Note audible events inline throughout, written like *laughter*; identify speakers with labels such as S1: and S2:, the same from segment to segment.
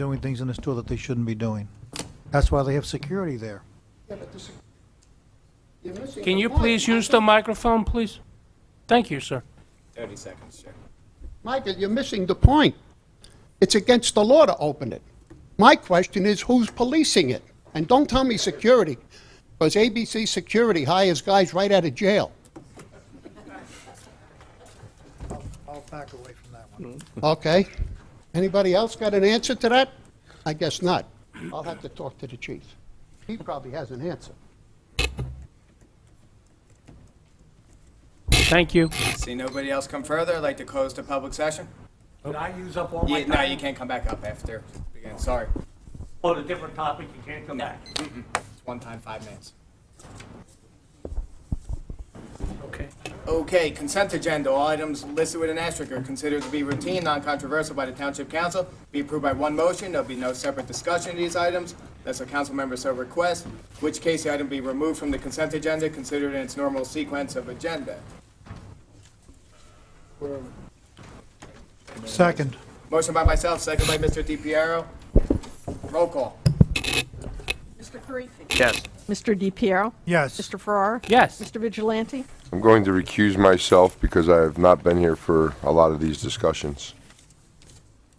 S1: doing things in the store that they shouldn't be doing. That's why they have security there.
S2: Yeah, but this- you're missing
S3: Can
S2: the
S3: you
S2: point.
S3: please use the microphone, please? Thank you, sir.
S4: 30 seconds, Chair.
S2: Michael, you're missing the point. It's against the law to open it. My question is, who's policing it? And don't tell me security, because ABC Security hires guys right out of jail,
S1: I'll back away from that one.
S2: okay? Anybody else got an answer to that? I guess not. I'll have to talk to the chief. He probably has an answer.
S3: Thank you.
S4: See nobody else come further, I'd like to close the public session?
S5: Did I use up all my
S4: Oh. Yeah, no, you
S5: time
S4: can't come back up after, again, sorry.
S5: on a different topic? You can't come back.
S4: It's one time, five minutes.
S3: Okay.
S4: Okay, consent agenda, all items listed with an asterisk are considered to be routine, non-controversial by the Township Council, be approved by one motion, there'll be no separate discussion of these items, unless a council member so requests, which case the item be removed from the consent agenda, considered in its normal sequence of agenda.
S1: Second.
S4: Motion by myself, second by Mr. DiPiero. Roll call.
S6: Mr. Karifi.
S7: Yes.
S6: Mr. DiPiero.
S1: Yes.
S6: Mr. Farrar.
S3: Yes,
S6: Mr. Vigilante.
S8: I'm going to recuse myself because I have not been here for a lot of these discussions.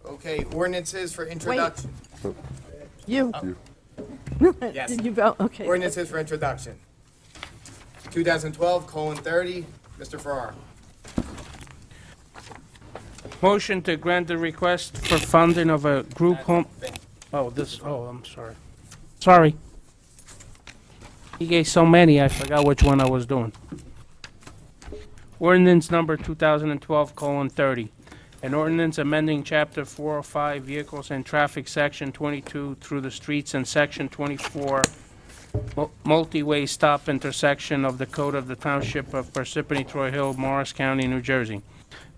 S4: Okay, ordinances for introduction.
S6: You.
S8: You.
S6: *laughs*
S4: Yes.
S6: Did you vote? Okay.
S4: Ordinances for introduction. 2012 colon 30, Mr. Farrar.
S3: motion to grant the request for funding of a group home, oh, this, oh, I'm sorry. Sorry. He gave so many, I forgot which one I was doing. Ordinance number 2012:30, an ordinance amending Chapter 405 Vehicles and Traffic, Section 22 through the streets and Section 24 mul- multi-way stop intersection of the Code of the Township of Parsippany Troy Hill, Morris County, New Jersey.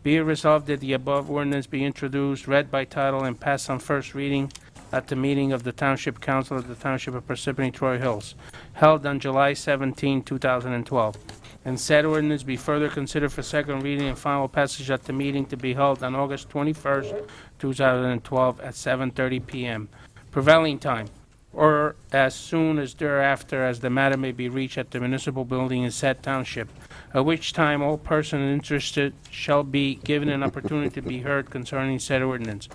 S3: Be it resolved that the above ordinance be introduced, read by title, and passed on first reading at the meeting of the Township Council of the Township of Parsippany Troy Hills, held on July 17, 2012. And said ordinance be further considered for second reading and final passage at the meeting to be held on August 21st, 2012, at 7:30 PM prevailing time, or as soon as thereafter as the matter may be reached at the municipal building in said township, at which time all person interested shall be given an opportunity to be heard concerning said ordinance.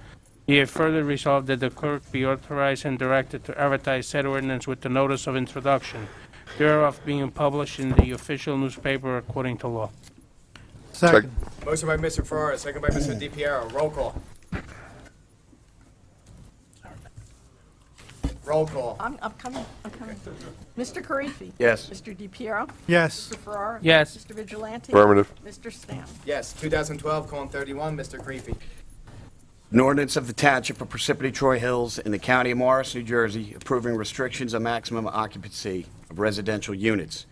S3: Be it further resolved that the clerk be authorized and directed to advertise said ordinance with the notice of introduction thereof being published in the official newspaper according to law.
S1: Second.
S4: Motion by Mr. Farrar, second by Mr. DiPiero. Roll call. Roll call.
S6: I'm, I'm coming, I'm coming. Mr. Karifi.
S7: Yes.
S6: Mr. DiPiero.
S1: Yes.
S6: Mr. Farrar.
S3: Yes.
S6: Mr. Vigilante.
S8: Affirmative.
S6: Mr. Stam.
S4: Yes, 2012 colon 31, Mr. Creepy.
S7: An ordinance of the Township of Parsippany Troy Hills in the County of Morris, New Jersey, approving restrictions on maximum occupancy of residential units.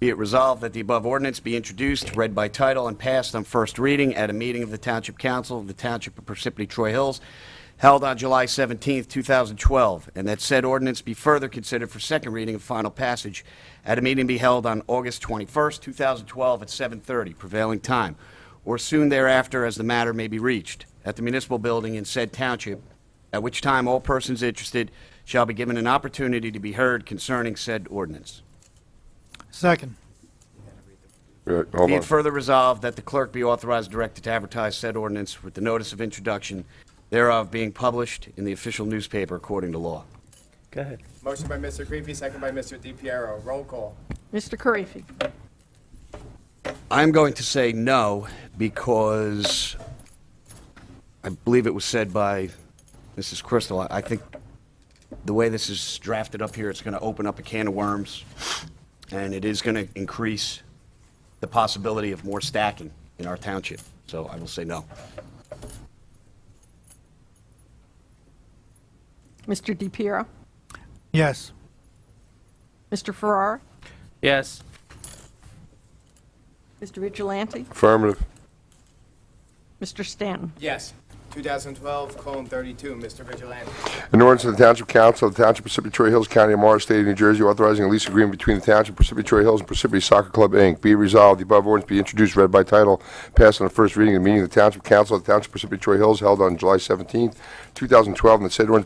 S7: Be it resolved that the above ordinance be introduced, read by title, and passed on first reading at a meeting of the Township Council of the Township of Parsippany Troy Hills held on July 17, 2012, and that said ordinance be further considered for second reading and final passage at a meeting to be held on August 21, 2012, at 7:30 prevailing time, or soon thereafter as the matter may be reached, at the municipal building in said township, at which time all persons interested shall be given an opportunity to be heard concerning said ordinance.
S1: Second.
S8: Uh, Hold
S7: Be
S8: on.
S7: it further resolved that the clerk be authorized and directed to advertise said ordinance with the notice of introduction thereof being published in the official newspaper according to law.
S3: Go ahead.
S4: Motion by Mr. Creepy, second by Mr. DiPiero. Roll call.
S6: Mr. Karifi.
S7: I'm going to say no because I believe it was said by Mrs. Crystal. I- I think the way this is drafted up here, it's going to open up a can of worms, and it is going to increase the possibility of more stacking in our township. So I will say no.
S6: Mr. DiPiero.
S1: Yes.
S6: Mr. Farrar.
S3: Yes.
S6: Mr. Vigilante.
S8: Affirmative.
S6: Mr. Stanton.
S4: Yes. 2012:32, Mr. Vigilante.
S8: An ordinance of the Township Council of the Township of Parsippany Troy Hills, County of Morris, State of New Jersey, authorizing a lease agreement between the Township of Parsippany Troy Hills and Parsippany Soccer Club, Inc. Be resolved, the above ordinance be introduced, read by title, passed on the first reading at the meeting of the Township Council of the Township of Parsippany Troy Hills held on July 17, 2012, and that said ordinance